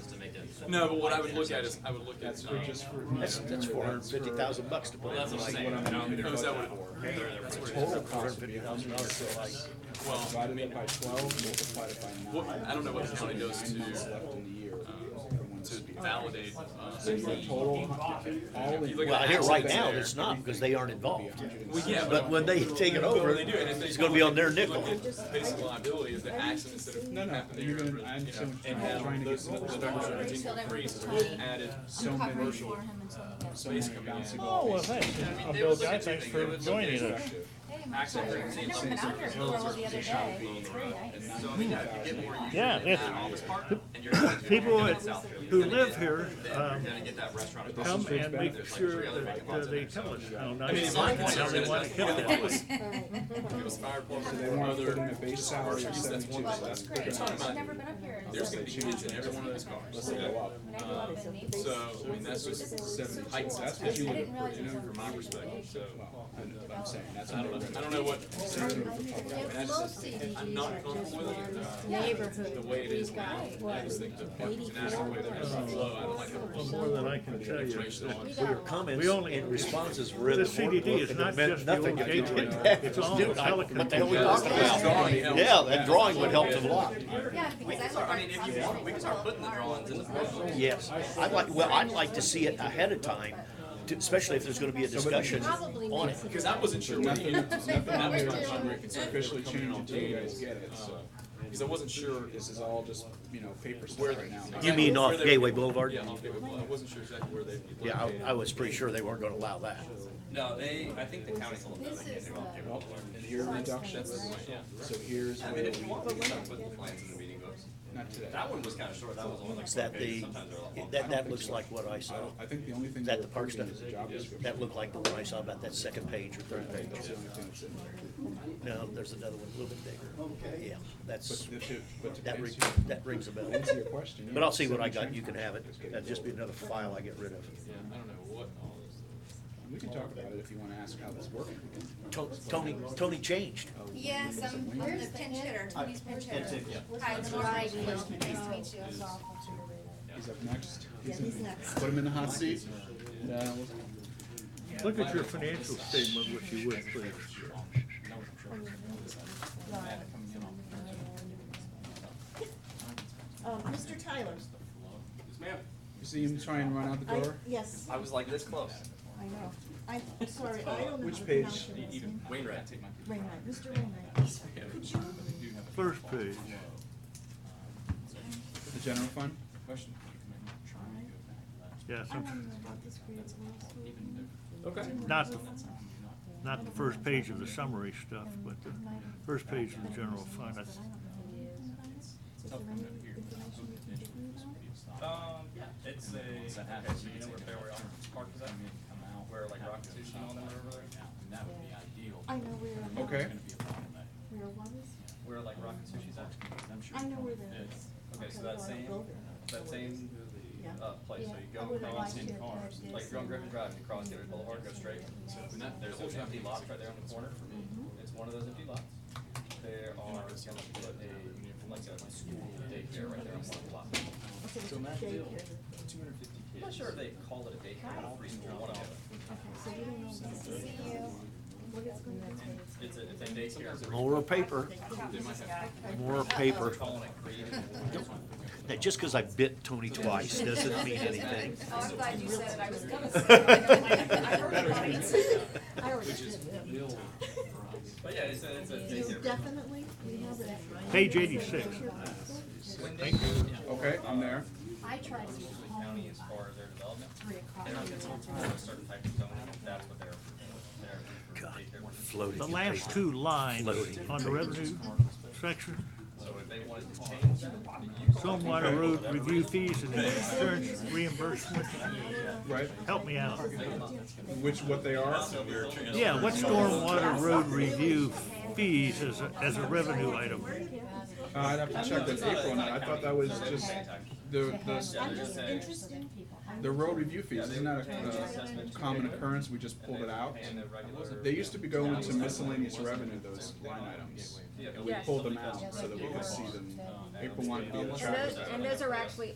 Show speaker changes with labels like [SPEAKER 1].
[SPEAKER 1] something.
[SPEAKER 2] No, but what
[SPEAKER 1] like
[SPEAKER 2] I would
[SPEAKER 1] that or
[SPEAKER 2] look at is,
[SPEAKER 1] something.
[SPEAKER 2] I would look at,
[SPEAKER 3] That's
[SPEAKER 2] um,
[SPEAKER 3] for just for.
[SPEAKER 4] That's, that's four hundred and fifty thousand bucks to
[SPEAKER 2] well,
[SPEAKER 4] put in.
[SPEAKER 2] that's what I'm
[SPEAKER 4] like,
[SPEAKER 2] saying,
[SPEAKER 3] what
[SPEAKER 2] no,
[SPEAKER 3] I'm-
[SPEAKER 2] is that what it,
[SPEAKER 1] That's what it is.
[SPEAKER 4] Total four hundred and fifty thousand dollars, so like,
[SPEAKER 2] well, I
[SPEAKER 3] Divided
[SPEAKER 2] mean,
[SPEAKER 3] it by twelve, multiplied it by
[SPEAKER 2] what, Oh.
[SPEAKER 3] nine.
[SPEAKER 2] I don't know what the county does
[SPEAKER 3] Nine months
[SPEAKER 2] to,
[SPEAKER 3] left in the year.
[SPEAKER 2] to validate, uh,
[SPEAKER 3] So it's like total, all in.
[SPEAKER 2] look at
[SPEAKER 4] well,
[SPEAKER 2] the
[SPEAKER 4] here
[SPEAKER 2] assets
[SPEAKER 4] right
[SPEAKER 2] there.
[SPEAKER 4] now, it's not, because they aren't involved.
[SPEAKER 2] well, yeah,
[SPEAKER 4] But when they take it over,
[SPEAKER 2] Well, Oh, they do, and if they
[SPEAKER 4] it's gonna be on their nickel.
[SPEAKER 2] look at Basic liability is the accidents that
[SPEAKER 3] No,
[SPEAKER 2] have
[SPEAKER 3] no,
[SPEAKER 2] happened
[SPEAKER 3] and
[SPEAKER 2] there,
[SPEAKER 3] you're
[SPEAKER 2] you
[SPEAKER 3] gonna,
[SPEAKER 2] know,
[SPEAKER 3] I'm so
[SPEAKER 2] and how
[SPEAKER 3] trying to get
[SPEAKER 2] those,
[SPEAKER 3] some.
[SPEAKER 2] those numbers are continuing to increase, so we've added
[SPEAKER 3] So
[SPEAKER 5] I'm
[SPEAKER 3] many
[SPEAKER 5] covering
[SPEAKER 3] commercial,
[SPEAKER 5] for him until he gets.
[SPEAKER 3] so many
[SPEAKER 2] Basically, yeah.
[SPEAKER 3] bouncing
[SPEAKER 6] Oh,
[SPEAKER 3] ball
[SPEAKER 6] well,
[SPEAKER 3] pieces.
[SPEAKER 6] thanks,
[SPEAKER 2] I mean,
[SPEAKER 6] uh,
[SPEAKER 2] they
[SPEAKER 6] Bill,
[SPEAKER 2] look
[SPEAKER 6] guy,
[SPEAKER 2] at
[SPEAKER 6] thanks
[SPEAKER 2] everything.
[SPEAKER 6] for
[SPEAKER 2] They look at
[SPEAKER 6] joining
[SPEAKER 2] everything.
[SPEAKER 6] us.
[SPEAKER 5] Hey, my
[SPEAKER 2] Actually,
[SPEAKER 5] pleasure.
[SPEAKER 2] it's-
[SPEAKER 5] I know I've been out here for a while the other day. It's very nice.
[SPEAKER 2] So I mean, yeah, if you get more users
[SPEAKER 6] Yeah,
[SPEAKER 2] in
[SPEAKER 6] it's-
[SPEAKER 2] that office park, and you're
[SPEAKER 6] people
[SPEAKER 2] gonna
[SPEAKER 6] that-
[SPEAKER 2] get South Philly,
[SPEAKER 6] Who
[SPEAKER 2] you're gonna
[SPEAKER 6] live
[SPEAKER 2] get-
[SPEAKER 6] here, um,
[SPEAKER 2] You're gonna get that restaurant across the
[SPEAKER 6] come
[SPEAKER 2] street.
[SPEAKER 6] and make sure that uh, they tell us how
[SPEAKER 2] I mean,
[SPEAKER 6] nice
[SPEAKER 2] at
[SPEAKER 6] it
[SPEAKER 2] one
[SPEAKER 6] is,
[SPEAKER 2] point, I
[SPEAKER 6] how they
[SPEAKER 2] mean,
[SPEAKER 6] wanna
[SPEAKER 2] that's-
[SPEAKER 6] kill
[SPEAKER 2] if it
[SPEAKER 6] it.
[SPEAKER 2] was, if it was fire
[SPEAKER 3] So
[SPEAKER 2] department,
[SPEAKER 3] they want to put in
[SPEAKER 2] other,
[SPEAKER 3] a base salary of
[SPEAKER 2] That's one
[SPEAKER 3] seventy-two,
[SPEAKER 2] of
[SPEAKER 5] Well,
[SPEAKER 3] so
[SPEAKER 5] it's
[SPEAKER 3] that's good.
[SPEAKER 5] great.
[SPEAKER 2] They're talking
[SPEAKER 5] I've
[SPEAKER 2] about-
[SPEAKER 5] never been up here.
[SPEAKER 2] there's gonna be kids in every one of those cars.
[SPEAKER 3] Let's go up.
[SPEAKER 5] And I grew up in Naples.
[SPEAKER 2] So, I mean, that's just seven heights,
[SPEAKER 5] That's
[SPEAKER 2] that's
[SPEAKER 5] what
[SPEAKER 2] what you
[SPEAKER 5] you
[SPEAKER 2] would,
[SPEAKER 5] would-
[SPEAKER 2] you know, from my perspective, so,
[SPEAKER 3] I know what I'm saying, that's.
[SPEAKER 2] Uh, I don't know, I don't know what,
[SPEAKER 7] It's mostly these
[SPEAKER 2] I'm not comfortable with it, uh, the
[SPEAKER 7] neighborhood
[SPEAKER 2] way it is now,
[SPEAKER 7] guys,
[SPEAKER 2] I
[SPEAKER 7] what,
[SPEAKER 2] just think the parking's inadequate, way there's a flow, I don't like how
[SPEAKER 6] Well,
[SPEAKER 2] there's
[SPEAKER 6] more than I can tell you.
[SPEAKER 2] information on.
[SPEAKER 7] we
[SPEAKER 4] For your
[SPEAKER 7] don't.
[SPEAKER 4] comments
[SPEAKER 6] We only-
[SPEAKER 4] and responses were in
[SPEAKER 6] The
[SPEAKER 4] the workbook,
[SPEAKER 6] CDD is
[SPEAKER 4] and
[SPEAKER 6] not
[SPEAKER 4] it meant
[SPEAKER 6] just the
[SPEAKER 4] nothing
[SPEAKER 6] old
[SPEAKER 4] to do with
[SPEAKER 6] gateway,
[SPEAKER 4] that.
[SPEAKER 6] it's all
[SPEAKER 4] Dude, I-
[SPEAKER 6] Pelican.
[SPEAKER 4] What the hell we
[SPEAKER 2] Yeah,
[SPEAKER 4] talking
[SPEAKER 2] this drawing
[SPEAKER 4] about?
[SPEAKER 2] helps.
[SPEAKER 4] Yeah, that drawing would help them a lot.
[SPEAKER 5] Yeah, because I live
[SPEAKER 2] I
[SPEAKER 5] right
[SPEAKER 2] mean, if
[SPEAKER 5] across
[SPEAKER 2] you
[SPEAKER 5] the
[SPEAKER 2] want, we
[SPEAKER 5] street
[SPEAKER 2] can
[SPEAKER 5] from
[SPEAKER 2] start putting the
[SPEAKER 5] our
[SPEAKER 2] drawings in the book.
[SPEAKER 4] Yes, I'd like, well, I'd like to see it ahead of time, to- especially if there's gonna be a discussion on it.
[SPEAKER 2] Because I wasn't sure what
[SPEAKER 3] Nothing,
[SPEAKER 2] the, that
[SPEAKER 3] nothing
[SPEAKER 2] was
[SPEAKER 3] here
[SPEAKER 2] my primary
[SPEAKER 3] is
[SPEAKER 2] concern, they were
[SPEAKER 3] officially
[SPEAKER 2] coming in
[SPEAKER 3] changed
[SPEAKER 2] on
[SPEAKER 3] until you guys
[SPEAKER 2] days.
[SPEAKER 3] get it, so
[SPEAKER 2] Because I wasn't sure.
[SPEAKER 3] this is all just, you know, paper stuff
[SPEAKER 2] Uh, Where
[SPEAKER 3] right now.
[SPEAKER 4] You mean off
[SPEAKER 2] where they-
[SPEAKER 4] Gateway Boulevard?
[SPEAKER 2] Yeah, off Gateway Boulevard, I wasn't sure exactly where they'd be
[SPEAKER 4] Yeah,
[SPEAKER 2] located.
[SPEAKER 4] I, I was pretty sure they weren't gonna allow that.
[SPEAKER 2] No, they, I think the county's a little bit, they do off Gateway
[SPEAKER 3] Well,
[SPEAKER 2] Boulevard.
[SPEAKER 3] And here reduction,
[SPEAKER 2] That's the point, yeah.
[SPEAKER 3] so here's
[SPEAKER 2] I
[SPEAKER 3] where
[SPEAKER 2] mean, if you
[SPEAKER 3] we,
[SPEAKER 2] want, we can start putting the plans in the meeting books.
[SPEAKER 3] not today.
[SPEAKER 2] That one was kinda short, that was only like
[SPEAKER 4] Is
[SPEAKER 2] four
[SPEAKER 4] that the,
[SPEAKER 2] pages, sometimes they're like.
[SPEAKER 4] that, that looks like what I saw.
[SPEAKER 3] I think the only thing.
[SPEAKER 4] Is that
[SPEAKER 3] we're
[SPEAKER 4] the park
[SPEAKER 3] approving
[SPEAKER 4] stuff?
[SPEAKER 3] is the Job description.
[SPEAKER 4] That looked like the one I saw about that second page or third page.
[SPEAKER 3] That's the only thing that's in there.
[SPEAKER 4] No, there's another one, a little bit bigger. Yeah, that's,
[SPEAKER 3] But to, but to
[SPEAKER 4] that
[SPEAKER 3] answer,
[SPEAKER 4] rings, that rings a bell.
[SPEAKER 3] answer your question.
[SPEAKER 4] But I'll see
[SPEAKER 3] yeah,
[SPEAKER 4] what I got,
[SPEAKER 3] seventy
[SPEAKER 4] you can have it. That'd just be another file I get rid of.
[SPEAKER 2] Yeah, I don't know what all this.
[SPEAKER 3] We can talk about it if you wanna ask how this working.
[SPEAKER 4] To- Tony, Tony changed.
[SPEAKER 5] Yes, I'm, I'm the pinch hitter, Tony's pinch hitter. Hi, it's Laura. Nice to meet you.
[SPEAKER 3] He's up next. He's in- Put him in the hot seat. Uh, No,
[SPEAKER 6] Look at your financial statement, if you would, please.
[SPEAKER 7] Um, Mr. Tyler,
[SPEAKER 2] Yes, ma'am.
[SPEAKER 3] You see him try and run out the
[SPEAKER 7] I,
[SPEAKER 3] door?
[SPEAKER 7] yes,
[SPEAKER 2] I was like this close.
[SPEAKER 7] I know. I'm sorry, I don't know
[SPEAKER 3] Which
[SPEAKER 7] how to
[SPEAKER 3] page?
[SPEAKER 7] pronounce your last name.
[SPEAKER 2] Wainwright.
[SPEAKER 7] Wainwright, Mr. Wainwright. Could you,
[SPEAKER 6] First page.
[SPEAKER 3] The general fund?
[SPEAKER 6] Yes,
[SPEAKER 7] I wanna know about this grant also.
[SPEAKER 2] Okay.
[SPEAKER 6] not, the- not the first page of the summary stuff, but the first page of the general fund. I-
[SPEAKER 7] Is there any information you can give me about?
[SPEAKER 8] Um, yeah, it's a, okay, so you know where Fairway Arms Park is at? Where like Rocket Sushi and all them are over there?
[SPEAKER 7] I know where,
[SPEAKER 3] Okay.
[SPEAKER 7] where one is.
[SPEAKER 8] Where like Rocket Sushi's at?
[SPEAKER 7] I know where that is.
[SPEAKER 8] Okay, so
[SPEAKER 7] Okay,
[SPEAKER 8] that
[SPEAKER 7] well,
[SPEAKER 8] same,
[SPEAKER 7] I'll go there.
[SPEAKER 8] that same,
[SPEAKER 7] Yeah.
[SPEAKER 8] uh, place, so
[SPEAKER 7] Yeah,
[SPEAKER 8] you
[SPEAKER 7] I
[SPEAKER 8] go
[SPEAKER 7] would've
[SPEAKER 8] across,
[SPEAKER 7] liked to have had this
[SPEAKER 8] like you're on
[SPEAKER 7] in
[SPEAKER 8] Griffin
[SPEAKER 7] my-
[SPEAKER 8] Drive, you cross Gateway Boulevard, go straight. And that, there's an empty lot right there on the corner for me.
[SPEAKER 7] Mm-hmm.
[SPEAKER 8] It's one of those empty lots. There are, it's gonna put a, like a school daycare right there on one of the lots.
[SPEAKER 7] Okay, so daycare.
[SPEAKER 8] I'm not sure if they call it a daycare or preschool, one of them.
[SPEAKER 7] Okay, so you don't know about this. What it's gonna be.
[SPEAKER 8] It's a, it's a daycare.
[SPEAKER 4] More paper, more paper.
[SPEAKER 8] Calling it creative.
[SPEAKER 4] Now, just because I bit Tony twice doesn't mean anything.
[SPEAKER 5] Oh, I'm glad you said it. I was gonna say. it. I heard about it.
[SPEAKER 7] I already did that.
[SPEAKER 8] But yeah, it's a, it's a
[SPEAKER 7] You
[SPEAKER 8] daycare.
[SPEAKER 7] definitely, you have it.
[SPEAKER 6] Page 86.
[SPEAKER 3] Okay, I'm there.
[SPEAKER 7] I tried to.
[SPEAKER 8] County as far as their development,
[SPEAKER 7] Three o'clock.
[SPEAKER 8] they're a certain type of zoning, that's what they're, they're.
[SPEAKER 4] God,
[SPEAKER 8] daycare ordinance.
[SPEAKER 4] floating.
[SPEAKER 6] The last two lines
[SPEAKER 4] Floating.
[SPEAKER 6] on the revenue section,
[SPEAKER 8] So if they wanted to change that, the use,
[SPEAKER 6] stormwater road review fees and insurance reimbursement,
[SPEAKER 3] Right,
[SPEAKER 6] help me out.
[SPEAKER 3] which, what they are?
[SPEAKER 6] Yeah, what stormwater road review fees as, a- as a revenue item?
[SPEAKER 3] Uh, I'd have to check that April, and I thought that was just the,
[SPEAKER 7] I'm
[SPEAKER 3] the,
[SPEAKER 7] just interested in people. I'm-
[SPEAKER 3] the road review fees, isn't that a, a common occurrence, we just pulled it out?
[SPEAKER 8] and the regular.
[SPEAKER 3] They used to be going to miscellaneous revenue, those line items,
[SPEAKER 8] Um,
[SPEAKER 3] and we pulled them out so that we could see them. April wanted to be able to
[SPEAKER 9] And
[SPEAKER 3] track
[SPEAKER 9] those,
[SPEAKER 3] that.
[SPEAKER 9] and those are actually